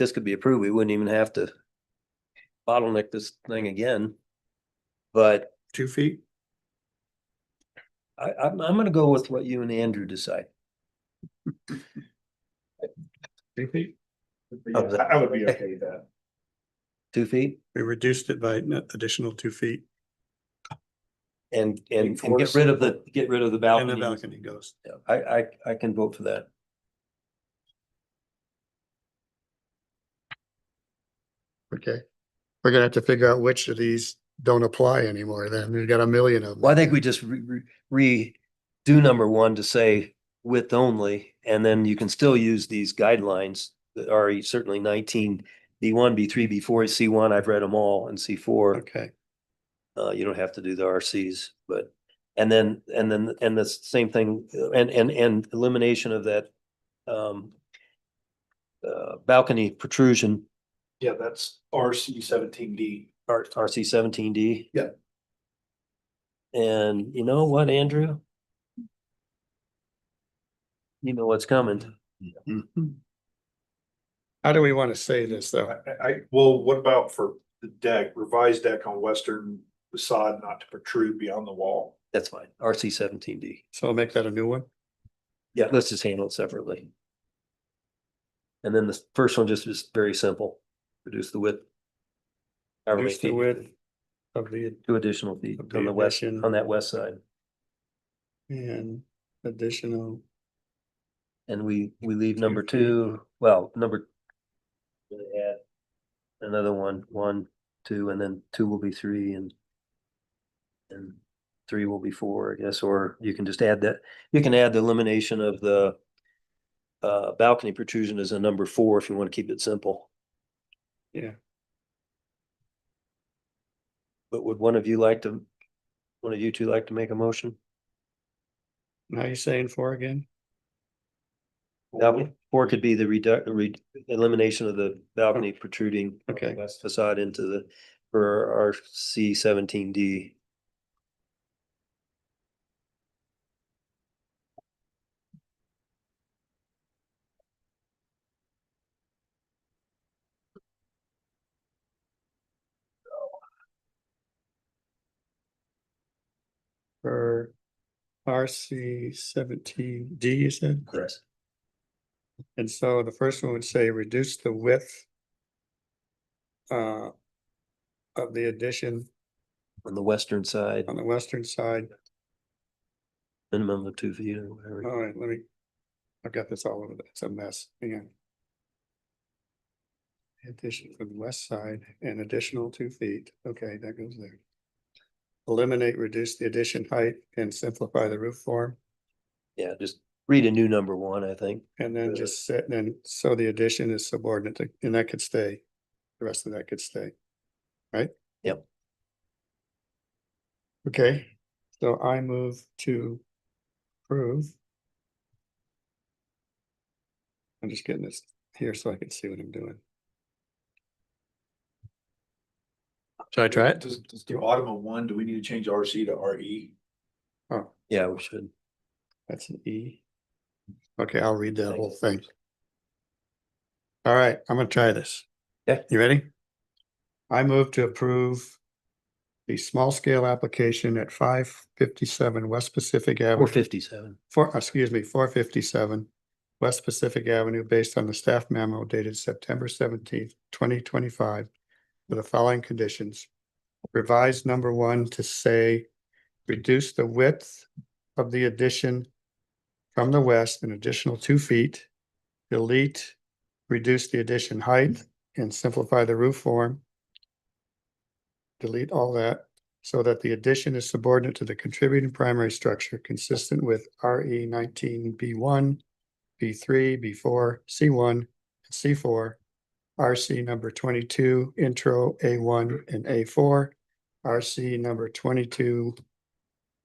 this could be approved, we wouldn't even have to bottleneck this thing again. But two feet? I, I'm, I'm gonna go with what you and Andrew decide. Two feet? Yeah, I I would be okay with that. Two feet We reduced it by an additional two feet and, and, and get Enforce rid of the, get rid of the and the balcony. balcony goes. I, I, I can vote for that. Okay. We're gonna have to figure out which of these don't apply anymore then. We've got a million of them. Well, I think we just re, re- re, do number one to say width only, and then you can still use these guidelines that are certainly nineteen B one, B three, B four, C one, I've read them all, and C four. Okay, Uh, you don't have to do the RCs, but, and then, and then, and the same thing, uh, and, and, and elimination of that, um, uh, balcony protrusion, Yeah, that's RC seventeen D. R, RC seventeen D. Yeah. And you know what, Andrew? You know what's coming. how do we want to say this though? I, I, well, what about for the deck, revised deck on western facade not to protrude beyond the wall? That's fine. RC seventeen D. So I'll make that a new one. Yeah, let's just handle it separately. And then the first one just is very simple. Reduce the width. However Reduce the many feet. width of the, Two additional feet Of on the the west, addition. on that west side. and additional, And we, we leave Two number feet. two, well, number. we add Another one, one, two, and then two will be three and. And three will be four, I guess, or you can just add that, you can add the elimination of the. Uh, balcony protrusion as a number four if you want to keep it simple. Yeah. But would one of you like to, one of you two like to make a motion? now you're saying four again? Balcony, or it could be the reduct, re, elimination of the balcony protruding. Okay. west facade into the, for our C seventeen D. For RC seventeen D, you said? Yes. And so the first one would say reduce the width uh, of the addition On the western side, on the western side. minimum of two feet or whatever. All right, let me, I've got this all over, the- it's a mess, hang on. Addition from the west side, an additional two feet, okay, that goes there. Eliminate, reduce the addition height and simplify the roof form, Yeah, just read a new number one, I think. and then Uh, just set, and so the addition is subordinate, to- and that could stay. The rest of that could stay, right? Yep. Okay, so I move to approve. I'm just getting this here so I can see what I'm doing. Should I try it? Does, does the bottom of one, do we need to change RC to E? RE? Oh, Yeah, we should. that's an E. Okay, I'll read that whole thing. All right, I'm gonna try this. Okay. You ready? I move to approve the small scale application at five fifty-seven West Pacific Avenue. Four fifty-seven. four, uh, excuse me, four fifty-seven West Pacific Avenue, based on the staff memo dated September seventeenth, twenty twenty-five, with the following conditions. Revised number one to say, reduce the width of the addition from the west an additional two feet. Delete, reduce the addition height and simplify the roof form. Delete all that so that the addition is subordinate to the contributing primary structure consistent with RE nineteen B one, B three, B four, C one, and C four, RC number twenty-two, intro A one and A four, RC number twenty-two,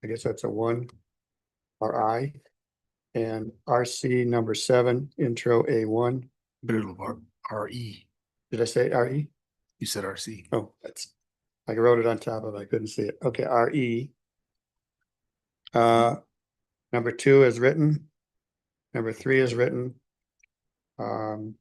I guess that's a one, or I, and RC number seven, intro A one, Middle of RE, did I say E? RE? E. you said RC. Oh, that's, I wrote it on top of, it, I couldn't see it. Okay, R E. Uh, number two is written. Number three is written. Um,